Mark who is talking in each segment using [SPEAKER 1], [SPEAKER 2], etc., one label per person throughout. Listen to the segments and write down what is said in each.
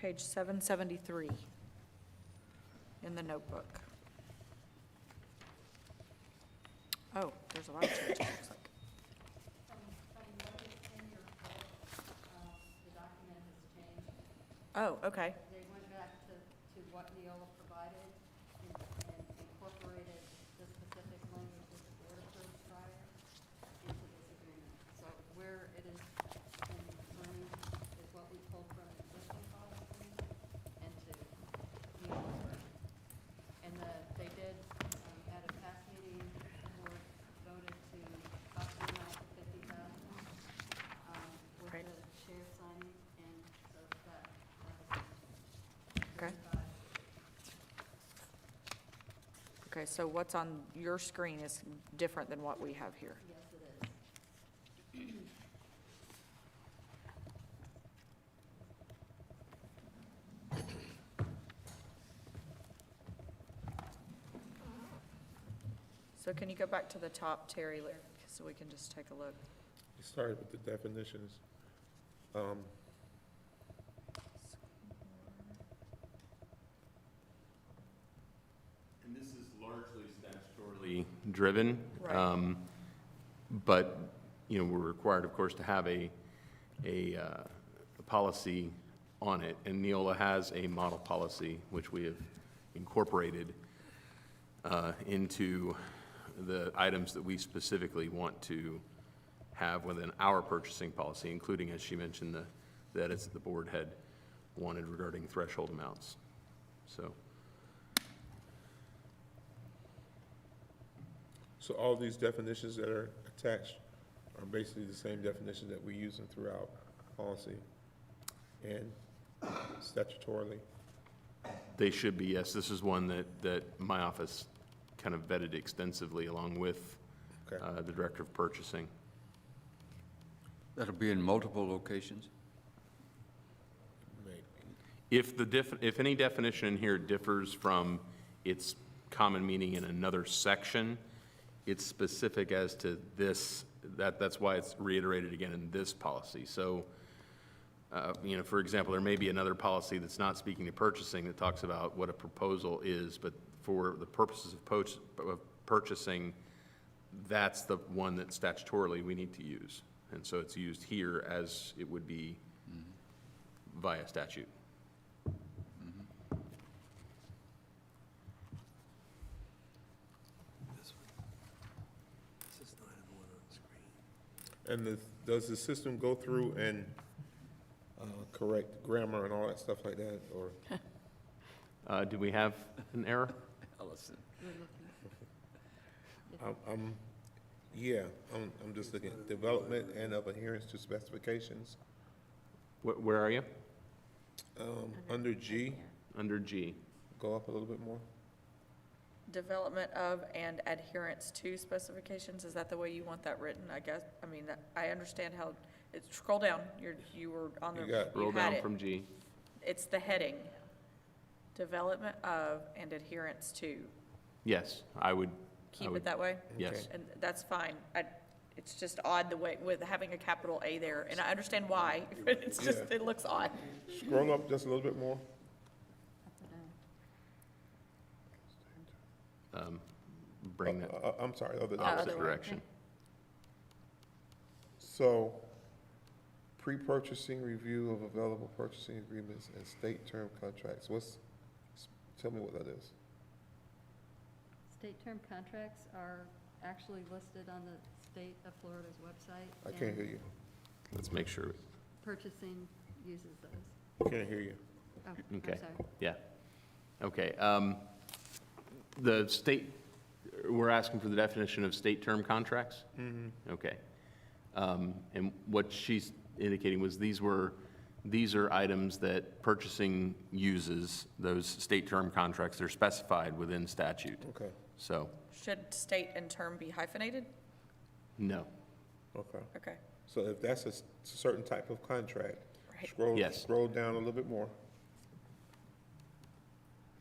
[SPEAKER 1] page 773 in the notebook. Oh, there's a lot of changes, it looks like.
[SPEAKER 2] uh, The document has changed.
[SPEAKER 1] Oh, okay,
[SPEAKER 2] They went back to, to what Neola provided and and incorporated the specific language that the board approved prior into this agreement. So where it is in attorney is what we pulled from the existing policy agreement and to Neola's version. And the, they did, um, at a past meeting, the board voted to up the amount to fifty thousand, um, with
[SPEAKER 1] Right.
[SPEAKER 2] the chair signing, and so that,
[SPEAKER 1] okay.
[SPEAKER 2] that's thirty-five.
[SPEAKER 1] Okay, so what's on your screen is different than what we have here.
[SPEAKER 2] Yes, it is.
[SPEAKER 1] So can you go back to the top, Terry, like, so we can just take a look?
[SPEAKER 3] It started with the definitions. Um,
[SPEAKER 4] And this is largely statutorily driven.
[SPEAKER 1] Right.
[SPEAKER 4] um, But, you know, we're required, of course, to have a, a, uh, a policy on it. And Neola has a model policy, which we have incorporated uh, into the items that we specifically want to have within our purchasing policy, including, as she mentioned, the, the edits that the board had wanted regarding threshold amounts. So.
[SPEAKER 3] So all these definitions that are attached are basically the same definitions that we use them throughout policy and statutorily.
[SPEAKER 4] They should be, yes. This is one that, that my office kind of vetted extensively along with
[SPEAKER 3] Okay.
[SPEAKER 4] uh, the Director of Purchasing.
[SPEAKER 5] That'll be in multiple locations?
[SPEAKER 3] Mate,
[SPEAKER 4] If the diff, if any definition in here differs from its common meaning in another section, it's specific as to this, that, that's why it's reiterated again in this policy. So, uh, you know, for example, there may be another policy that's not speaking to purchasing that talks about what a proposal is, but for the purposes of poach, of purchasing, that's the one that statutorily we need to use. And so it's used here as it would be via statute.
[SPEAKER 3] And the, does the system go through and, uh, correct grammar and all that stuff like that, or?
[SPEAKER 4] Uh, Do we have an error?
[SPEAKER 5] Ellison.
[SPEAKER 3] I'm, I'm, yeah, I'm, I'm just looking at development and of adherence to specifications,
[SPEAKER 4] Wh- Where are you?
[SPEAKER 3] um, under G,
[SPEAKER 4] Under G.
[SPEAKER 3] go up a little bit more.
[SPEAKER 1] Development of and adherence to specifications, is that the way you want that written, I guess? I mean, that- I understand how, it's, scroll down, you're, you were on the,
[SPEAKER 3] You got it.
[SPEAKER 1] you
[SPEAKER 4] Roll
[SPEAKER 1] had
[SPEAKER 4] down
[SPEAKER 1] it.
[SPEAKER 4] from G.
[SPEAKER 1] It's the heading. Development of and adherence to.
[SPEAKER 4] Yes, I would,
[SPEAKER 1] Keep it
[SPEAKER 4] would-
[SPEAKER 1] that way?
[SPEAKER 4] yes.
[SPEAKER 1] And that's fine. I, it's just odd the way, with having a capital A there, and I understand why, but it's just,
[SPEAKER 3] Yeah.
[SPEAKER 1] it looks odd.
[SPEAKER 3] Scroll up just a little bit more.
[SPEAKER 4] um, bring that
[SPEAKER 3] Uh, uh, I'm sorry, other than.
[SPEAKER 4] opposite
[SPEAKER 1] Oh, other way.
[SPEAKER 4] direction.
[SPEAKER 3] So, pre-purchasing review of available purchasing agreements and state term contracts, what's, tell me what that is.
[SPEAKER 2] State term contracts are actually listed on the state of Florida's website.
[SPEAKER 3] I can't hear
[SPEAKER 2] and
[SPEAKER 3] you.
[SPEAKER 4] Let's make sure,
[SPEAKER 2] Purchasing uses those.
[SPEAKER 3] Can't hear you.
[SPEAKER 2] Oh, I'm
[SPEAKER 4] Okay.
[SPEAKER 2] sorry.
[SPEAKER 4] yeah. Okay. um, The state, we're asking for the definition of state term contracts?
[SPEAKER 3] Mm-hmm.
[SPEAKER 4] Okay. Um, And what she's indicating was these were, these are items that purchasing uses, those state term contracts, they're specified within statute.
[SPEAKER 3] Okay,
[SPEAKER 4] So,
[SPEAKER 1] Should state and term be hyphenated?
[SPEAKER 4] no.
[SPEAKER 3] okay.
[SPEAKER 1] Okay,
[SPEAKER 3] So if that's a s- certain type of contract,
[SPEAKER 1] right.
[SPEAKER 3] scroll,
[SPEAKER 4] Yes.
[SPEAKER 3] scroll down a little bit more.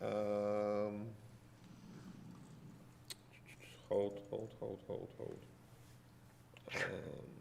[SPEAKER 3] Um, Hold, hold, hold, hold, hold. Um,